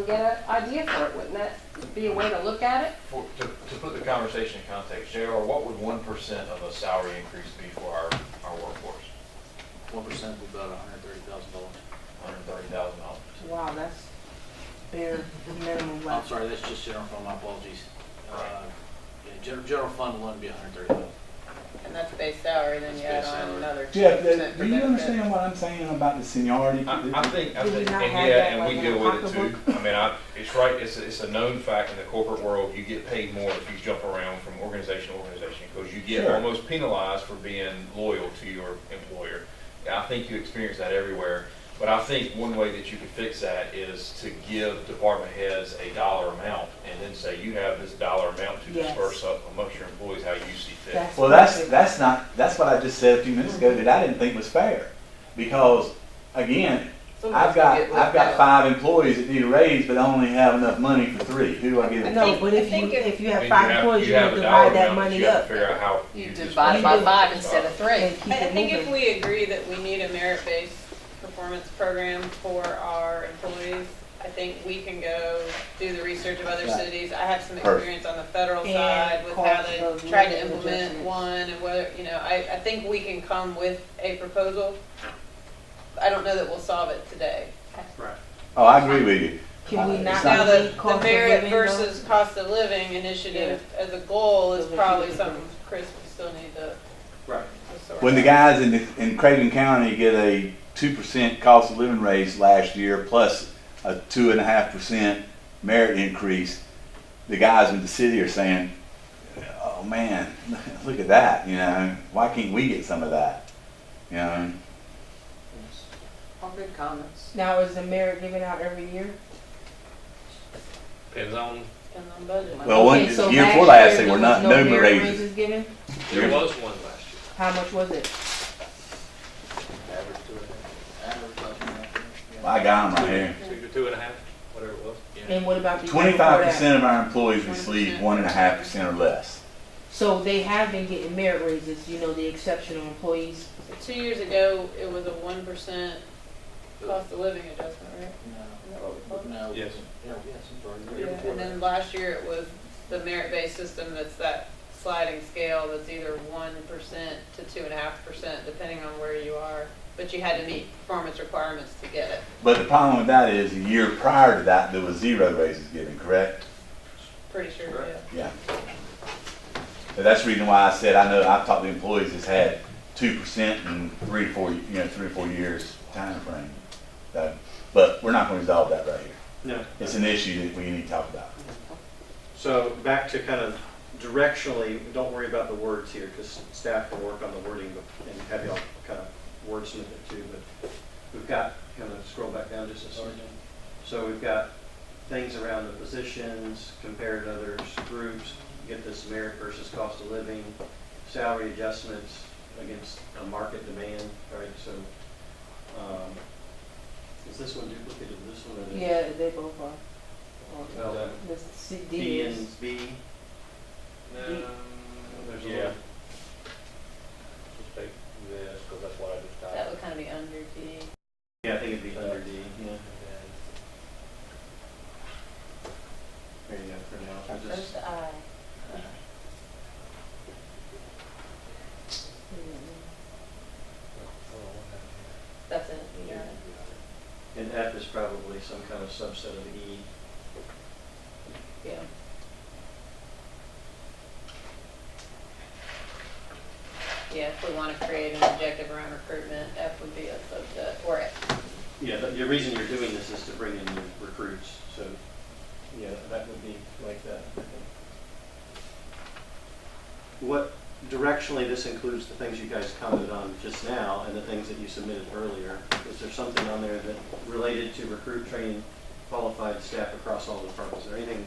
get an idea for it, wouldn't that be a way to look at it? For, to, to put the conversation in context, JR, what would one percent of a salary increase be for our, our workforce? One percent would be about hundred and thirty thousand dollars. Hundred thirty thousand dollars. Wow, that's bare minimum I'm level. sorry, that's just general fund, my apologies. Right. Uh, Yeah, general, general fund alone would be hundred and thirty thousand. And that's base salary, then you add That's base on salary. another two Jeff, percent that- for do you benefits. understand what I'm saying about the seniority? I, I think, I Do we think, not and have yeah, that, and like, we in deal a with it too. I mean, I, it's right, it's, a- it's a known fact in the corporate world, you get paid more if you jump around from organization to organization, because you get Sure. almost penalized for being loyal to your employer. And I think you experience that everywhere, but I think one way that you could fix that is to give department heads a dollar amount, and then say, you have this dollar amount to Yes. disperse up amongst your employees how you see fit. That's Well, that's, perfect. that's not, that's what I just said a few minutes ago that I didn't think was fair. Because, again, Some of us I've got, get I've left got out. five employees that need a raise, but I only have enough money for three. Who do I give it to? No, but if you, if you have five employees, you have to dollar divide that amount money you have to up. Figure out how. You disperse divide it by that five dollar. instead of three. and I keep I it think if moving. we agree that we need a merit-based performance program for our employees, I think we can go do the research of other Right. cities. I have some Perfect. experience on the federal And side with how cost they of tried to living implement adjustments. one and whether, you know, I, I think we can come with a proposal. I don't know that we'll solve it today. Right. Oh, I agree with you. Can we It's not Now, do the, cost the of merit living, though? versus cost of living initiative as a goal is Those are two probably different something Chris will still need to Right. to sort out. When the guys in, the- in Craven County get a two percent cost of living raise last year, plus a two and a half percent merit increase, the guys in the city are saying, oh man, look at that, you know, why can't we get some of that? You know, All good comments. Now, is the mayor giving out every year? Depends on, Depends on budget. well, one, Okay, so year before last last, they year were there not, was no merit raises. raises given? there You're- was one last year. How much was it? Average two and a half. Average about two and a half. yeah. I got them right here. Two, two and a half, whatever it was. And what about the year before Twenty-five that? percent of our employees receive one and a half percent or less. So they have been getting merit raises, you know, the exceptional employees. So Two years ago, it was a one percent cost of living adjustment, right? Isn't that what we No, no. called Yes. Yeah, yes, I'm sorry. it? Year before And that. then last year, it was the merit-based system that's that sliding scale that's either one percent to two and a half percent, depending on where you are. But you had to meet performance requirements to get it, But the problem with that is, the year prior to that, there was zero raises given, correct? pretty sure, Right. yeah. Yeah. But that's the reason why I said, I know, I've talked to employees that's had two percent in three, to four, you know, three or four years timeframe. So, But we're not gonna resolve that right here. No. It's an issue that we need to talk about. So back to kind of directionally, don't worry about the words here, because staff will work on the wording but- and have y'all kind of wordsmith it too, but we've got, kind of scroll back down just a second. So we've got things around the positions, compared to other groups, get this merit versus cost of living, salary adjustments against a market demand, right? So, um, is this one duplicated, this one? or the- Yeah, they both are. Well, the The C- D B is, and B, Um, there's a yeah. little- Just take this, because that's what I just got. That would kind of be under D. Yeah, I think it'd be under D. uh, Yeah. And There you go, for now. I'll There's just- the uh, eye. That's it, you got it. And F is probably some kind of subset of E. Yeah. Yeah, if we want to create an objective around recruitment, F would be a subset, or Yeah, the, the reason you're doing this is to bring in new recruits, so, yeah, that would be like that. I think. What, directionally, this includes the things you guys commented on just now and the things that you submitted earlier. Is there something on there that related to recruit, train, qualified staff across all departments? Is there anything,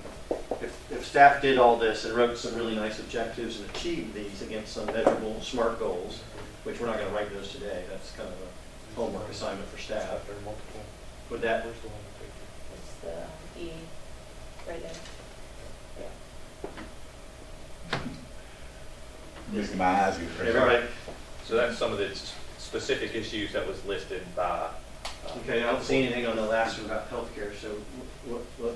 if, if staff did all this and wrote some really nice objectives and achieved these against some measurable SMART goals, which we're not gonna write those today, that's kind of a homework assignment for staff. There are multiple. Would that, Where's the one that picked it? it's the E, right there. Making my eyes get red. everybody, So that's some of the s- specific issues that was listed by. uh, okay, I don't see anything on the last one about healthcare, so what, what,